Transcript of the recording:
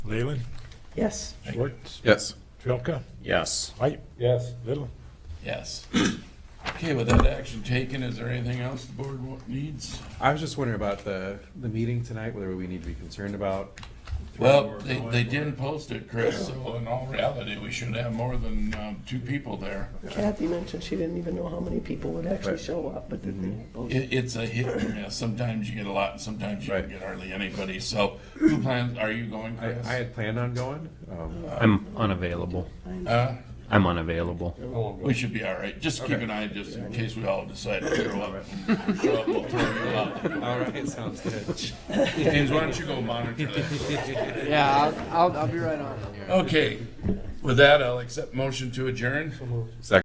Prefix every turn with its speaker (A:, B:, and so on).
A: Leyland,
B: Yes.
A: Schwartz,
C: Yes.
A: Trelka,
D: Yes.
A: White,
E: Yes.
A: Little.
F: Yes. Okay, with that action taken, is there anything else the board wa- needs?
C: I was just wondering about the, the meeting tonight, whether we need to be concerned about.
F: Well, they, they didn't post it, Chris, so in all reality, we should have more than, um, two people there.
B: Kathy mentioned she didn't even know how many people would actually
C: Right.
B: show up, but that they posted.
F: It, it's a hit or miss. Sometimes you get a lot, and sometimes you
C: Right.
F: get hardly anybody. So who plans, are you going,
C: I,
F: Chris?
C: I had planned on going. Um,
D: I'm unavailable.
F: Uh,
D: I'm unavailable.
F: We should be all right. Just keep an eye, just in case we all decide to throw up. Throw up, we'll throw you out.
C: All right, sounds good.
F: James, why don't you go monitor that?
G: Yeah, I'll, I'll, I'll be right on.
F: Okay, with that, I'll accept motion to adjourn.